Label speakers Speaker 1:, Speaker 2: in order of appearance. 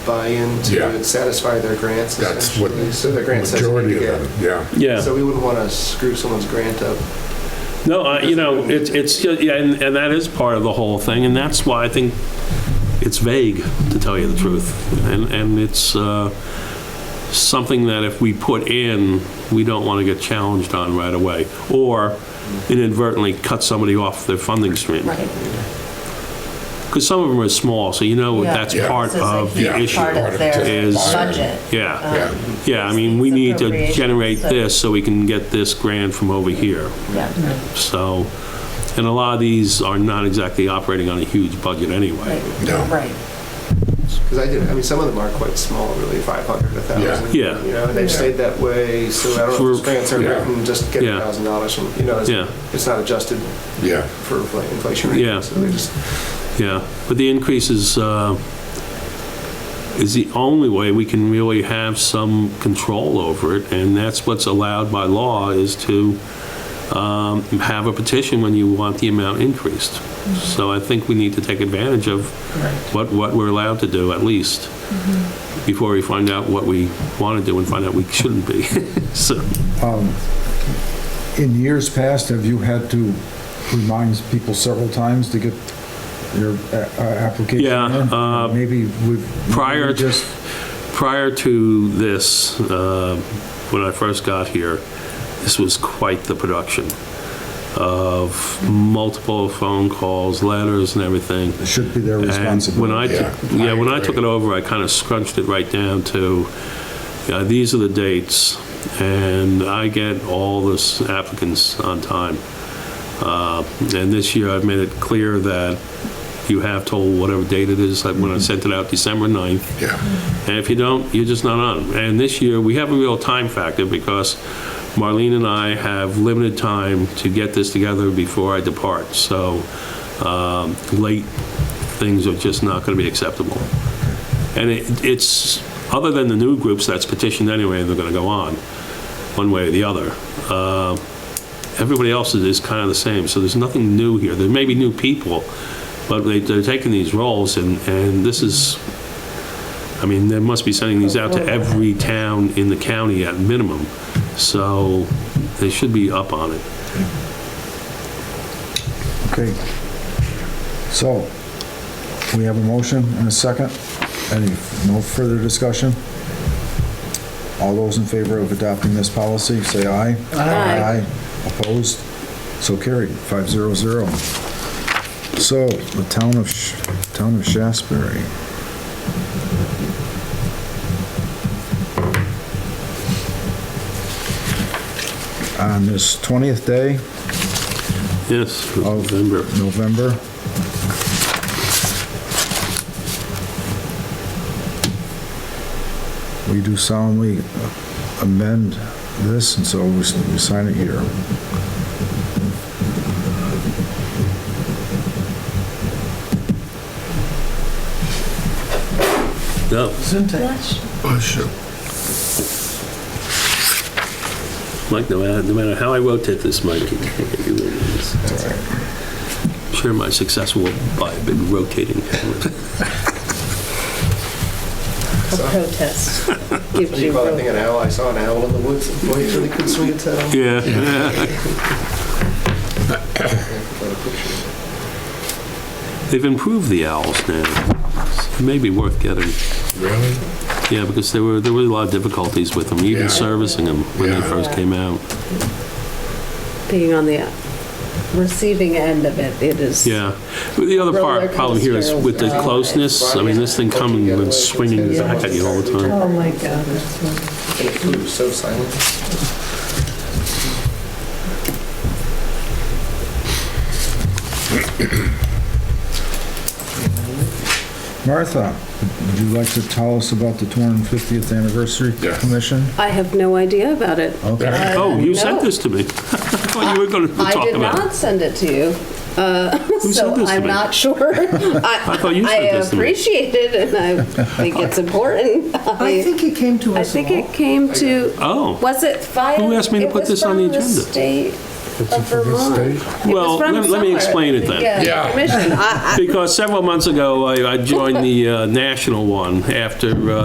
Speaker 1: buy-in
Speaker 2: Yeah.
Speaker 1: to satisfy their grants
Speaker 2: That's what
Speaker 1: essentially. So their grants has to
Speaker 2: majority
Speaker 1: be,
Speaker 2: of
Speaker 1: yeah.
Speaker 2: them, yeah.
Speaker 1: So
Speaker 3: Yeah,
Speaker 1: we wouldn't want to screw someone's grant up.
Speaker 3: no, I- you know, it's, it's, yeah, and, and that is part of the whole thing, and that's why I think it's vague, to tell you the truth. And, and it's uh, something that if we put in, we don't want to get challenged on right away, or inadvertently cut somebody off their funding stream.
Speaker 4: Right.
Speaker 3: Because some of them are small, so you know
Speaker 4: Yeah.
Speaker 3: that's
Speaker 2: Yeah.
Speaker 3: part
Speaker 4: This is a
Speaker 3: of the
Speaker 4: huge
Speaker 3: issue.
Speaker 4: Part
Speaker 2: Part
Speaker 4: of
Speaker 2: of
Speaker 4: their
Speaker 3: it.
Speaker 4: budget.
Speaker 3: Yeah,
Speaker 2: Yeah.
Speaker 3: yeah, I mean, we
Speaker 4: These
Speaker 3: need to
Speaker 4: appropriations,
Speaker 3: generate
Speaker 4: so-
Speaker 3: this so we can get this grant from over here.
Speaker 4: Yeah.
Speaker 3: So, and a lot of these are not exactly operating on a huge budget anyway.
Speaker 2: No.
Speaker 4: Right.
Speaker 1: Because I did, I mean, some of them are quite small, really, 500, 1,000.
Speaker 3: Yeah. Yeah.
Speaker 1: You know, and they've stayed that way, so I don't know if those grants are
Speaker 2: Yeah.
Speaker 1: written, just get
Speaker 3: Yeah.
Speaker 1: $1,000 from, you know,
Speaker 3: Yeah.
Speaker 1: it's- it's not adjusted
Speaker 2: Yeah,
Speaker 1: for infl- inflation.
Speaker 3: Yeah.
Speaker 1: So they just,
Speaker 3: Yeah, but the increase is, uh, is the only way we can really have some control over it, and that's what's allowed by law, is to um, have a petition when you want the amount increased. So I think we need to take advantage of what, what we're allowed to do, at least, before we find out what we want to do and find out we shouldn't be. So,
Speaker 5: In years past, have you had to remind people several times to get your uh, uh, application
Speaker 3: Yeah,
Speaker 5: in?
Speaker 3: uh,
Speaker 5: Maybe we've...
Speaker 3: prior
Speaker 5: maybe
Speaker 3: to-
Speaker 5: just-
Speaker 3: prior to this, uh, when I first got here, this was quite the production of multiple phone calls, letters and everything.
Speaker 5: It should be their
Speaker 3: And when I,
Speaker 5: responsibility.
Speaker 3: took-
Speaker 2: Yeah,
Speaker 3: yeah, when
Speaker 2: I
Speaker 3: I took it
Speaker 2: agree.
Speaker 3: over, I kind of scrunched it right down to, uh, these are the dates, and I get all this applicants on time. Uh, And this year, I've made it clear that you have till whatever date it is, like
Speaker 2: Mm-hmm.
Speaker 3: when I sent it out, December 9th,
Speaker 2: yeah,
Speaker 3: and if you don't, you're just not on. And this year, we have a real time factor because Marlene and I have limited time to get this together before I depart. So um, late things are just not going to be acceptable. And it- it's, other than the new groups that's petitioned anyway, and they're going to go on, one way or the other. uh, Everybody else is- is kind of the same, so there's nothing new here. There may be new people, but they- they're taking these roles, and and this is I mean, they must be sending these out to every town in the county at minimum, so they should be up on it.
Speaker 5: Okay. So, we have a motion and a second. Any, no further discussion? All those in favor of adopting this policy, say aye.
Speaker 4: Aye.
Speaker 5: Opposed? So carried, five zero zero. So, the town of, Sh- town of Shasberry. On this 20th day
Speaker 3: Yes, for
Speaker 5: of
Speaker 3: November.
Speaker 5: November. We do solemnly amend this, and so we s- we sign it here.
Speaker 3: No,
Speaker 2: oh, sure.
Speaker 3: Mike, no matter, no matter how I rotate this, Mike, you can't get your rings. Sure, my success will by a big rotating camera.
Speaker 4: A protest
Speaker 1: what
Speaker 4: gives
Speaker 1: do you
Speaker 4: you
Speaker 1: call that thing,
Speaker 4: room.
Speaker 1: an owl? I saw an owl in the woods, boy, it really could uh, swing its head.
Speaker 3: Yeah. They've improved the owls now. It may be worth getting.
Speaker 2: Really?
Speaker 3: Yeah, because there were, there were a lot of difficulties with them,
Speaker 2: Yeah.
Speaker 3: even servicing them when they
Speaker 2: Yeah.
Speaker 3: first came out.
Speaker 4: Being on the receiving end of it, it is.
Speaker 3: Yeah. But The other
Speaker 4: Roller
Speaker 3: part, problem here is with the
Speaker 4: coaster.
Speaker 3: closeness, I mean, this thing coming and swinging back at you all the time.
Speaker 4: Oh, my God. that's wonderful.
Speaker 1: And it flew so silent.
Speaker 5: Martha, would you like to tell us about the 250th Anniversary
Speaker 2: Yeah.
Speaker 5: Commission?
Speaker 4: I have no idea about it.
Speaker 5: Okay.
Speaker 4: Uh,
Speaker 3: Oh, you sent
Speaker 4: no.
Speaker 3: this to me. I thought you were going to
Speaker 4: I
Speaker 3: talk
Speaker 4: did
Speaker 3: about it.
Speaker 4: not send it to you. Uh,
Speaker 3: sent
Speaker 4: So
Speaker 3: this to
Speaker 4: I'm
Speaker 3: me?
Speaker 4: not sure.
Speaker 3: I thought you
Speaker 4: I
Speaker 3: sent this to me.
Speaker 4: appreciate it and I think it's important.
Speaker 6: I think it came to
Speaker 4: I
Speaker 6: us all.
Speaker 4: think it came to,
Speaker 3: Oh,
Speaker 4: was it via?
Speaker 3: Who asked me to
Speaker 4: it
Speaker 3: put
Speaker 4: was
Speaker 3: this on
Speaker 4: from
Speaker 3: the agenda?
Speaker 4: state
Speaker 2: It's a
Speaker 4: Of
Speaker 2: for the
Speaker 4: Vermont.
Speaker 2: state.
Speaker 4: It was
Speaker 3: Well,
Speaker 4: from
Speaker 3: let me- let me
Speaker 4: somewhere.
Speaker 3: explain it then.
Speaker 2: Yeah.
Speaker 4: Yeah, commission. I- I-
Speaker 3: Because several months ago, I I joined the uh, national one after uh,